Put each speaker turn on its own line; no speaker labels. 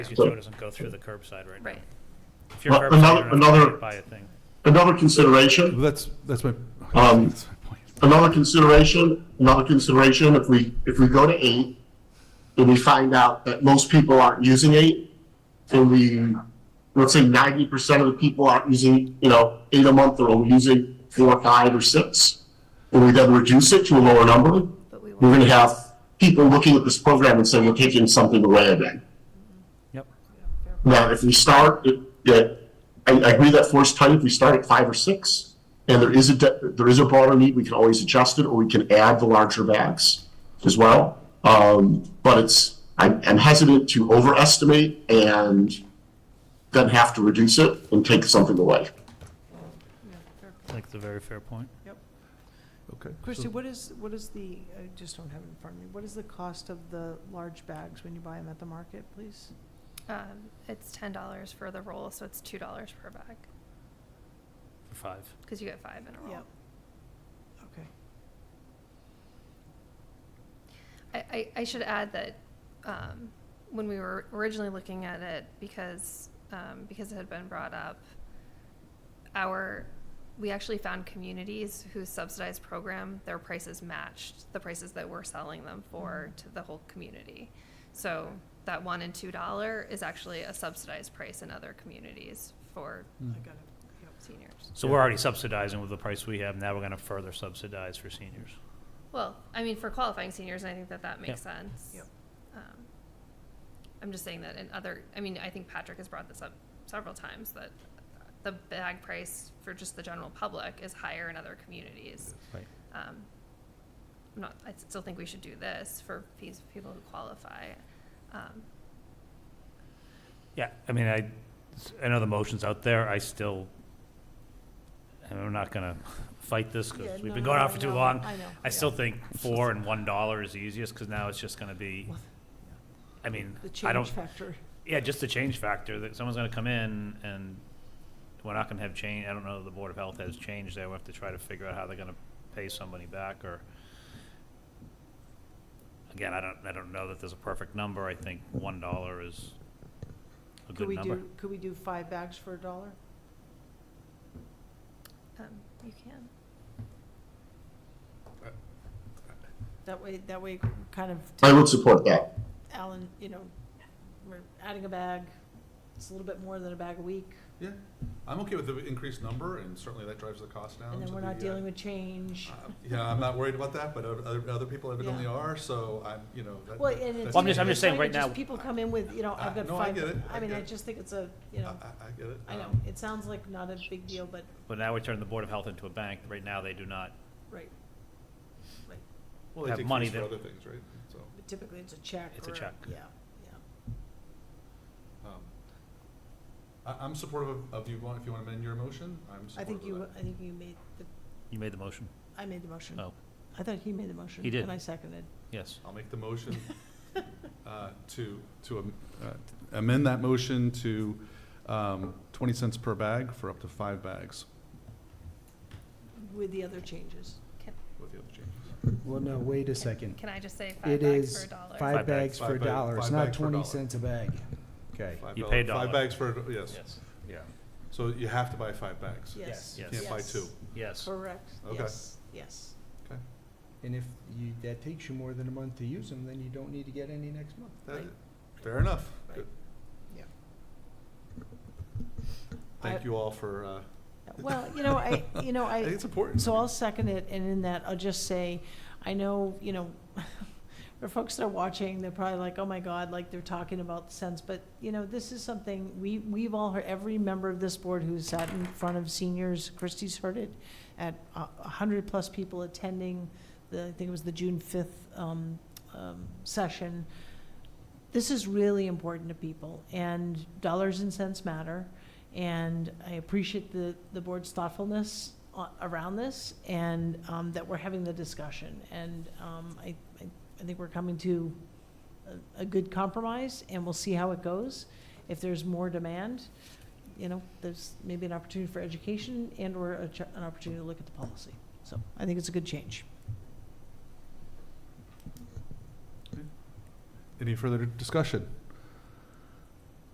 Your Joe doesn't go through the curbside right now.
Right.
If you're
Uh,
curbside,
another-
you're not gonna
another-
buy a thing.
Another consideration,
Well, That's, that's my,
Um,
that's my point.
another consideration, another consideration, if we, if we go to eight, and we find out that most people aren't using eight, and we, let's say ninety percent of the people aren't using, you know, eight a month, or are using four, five, or six, and we then reduce it to a lower number,
But we
we're
won't,
gonna have people looking at this program and saying, we're taking something away again.
Yep.
Now, if we start, it- yeah, I, I agree that force tight, if we start at five or six, and there is a, de- there is a broader need, we can always adjust it, or we can add the larger bags as well. Um, but it's, I'm, I'm hesitant to overestimate and then have to reduce it and take something away.
I think it's a very fair point.
Okay.
Christie, what is, what is the, I just don't have it in front of me, what is the cost of the large bags when you buy them at the market, please?
um, it's ten dollars for the roll, so it's two dollars per bag,
For five.
because you get five in a roll.
Yep. Okay.
I, I, I should add that, um, when we were originally looking at it, because, um, because it had been brought up, our, we actually found communities whose subsidized program, their prices matched the prices that we're selling them for to the whole community. So that one and two dollar is actually a subsidized price in other communities for
I got it. Yep.
seniors.
So we're already subsidizing with the price we have, now we're gonna further subsidize for seniors.
Well, I mean, for qualifying seniors, I think that that makes sense.
Yep.
Um, I'm just saying that in other, I mean, I think Patrick has brought this up several times, that the bag price for just the general public is higher in other communities.
Right.
Um, I'm not, I still think we should do this for these people who qualify. Um,
Yeah, I mean, I, I know the motion's out there, I still, and I'm not gonna fight this,
Yeah,
because we've
no,
been
no,
going
no,
on for
I
too
know,
long.
I know,
I still
yeah.
think four and one dollar is the easiest, because now it's just gonna be, I mean,
The
I don't,
change factor.
Yeah, just the change factor, that someone's gonna come in and we're not gonna have change, I don't know if the Board of Health has changed there, we have to try to figure out how they're gonna pay somebody back or. Again, I don't, I don't know that there's a perfect number, I think one dollar is a
Could
good
we
number.
do, could we do five bags for a dollar?
um, you can.
That way, that way, kind of,
I would support that.
Alan, you know, we're adding a bag, it's a little bit more than a bag a week,
Yeah, I'm okay with the increased number, and certainly that drives the cost down.
and then
to
we're
the,
not
uh,
dealing with change.
uh, Yeah, I'm not worried about that, but other, other people evidently
Yeah.
are, so I'm, you know, that.
Well,
that-
and it's.
Well, I'm just- I'm just saying
trying to
right now-
just People come in with, you know, I've
Uh,
got
no, I
five,
get it, I
I mean,
get
I
it. Uh,
just think it's a, you
I,
know,
I- I get it.
I know,
um,
it sounds like not a big deal, but,
But now we turn the Board of Health into a bank, right now they do not,
right. Right.
Well, they
have
take
money
fees for
that-
other things, right? So,
But typically, it's a check.
It's a
or-
check.
Yeah, yeah.
um, I, I'm supportive of, of you, want- if you want to amend your motion, I'm
I
supportive
think
of
you,
that.
I think you made the,
you made the motion,
I made the motion.
oh,
I thought he made the motion.
He did.
And I seconded.
yes,
I'll make the motion uh, to, to am- uh, amend that motion to um, 20 cents per bag for up to five bags
With the other changes.
with the other changes.
Well, no, wait a second.
Can I just say five
It
bags for
is
a dollar?
Five bags.
five bags for a
Five bag-
dollar. It's
five
not
bags for a
twenty
dollar.
cents a bag. Okay.
Five
You
doll-
pay a dollar.
Five bags for, a- yes.
yes,
Yeah. So you have to buy five bags.
Yes.
Yes.
Can't buy
Yes.
two.
yes.
Correct.
Okay.
Yes, yes.
And if you, that takes you more than a month to use them, then you don't need to get any next month.
That-
Right.
Fair enough.
Right.
Good.
Yeah.
Thank
I-
you all for, uh,
Well, you know, I, you know,
I think
I,
it's important.
so I'll second it, and in that, I'll just say, I know, you know, for folks that are watching, they're probably like, oh my God, like they're talking about the sense, but, you know, this is something, we, we've all heard, every member of this board who's sat in front of seniors, Christie's heard it, at a a hundred plus people attending the, I think it was the June fifth, um, um, session. This is really important to people, and dollars and cents matter. And I appreciate the, the board's thoughtfulness a- around this and um, that we're having the discussion. And um, I, I I think we're coming to a- a good compromise and we'll see how it goes. If there's more demand, you know, there's maybe an opportunity for education and/or a ch- an opportunity to look at the policy. So I think it's a good change.
Any further discussion?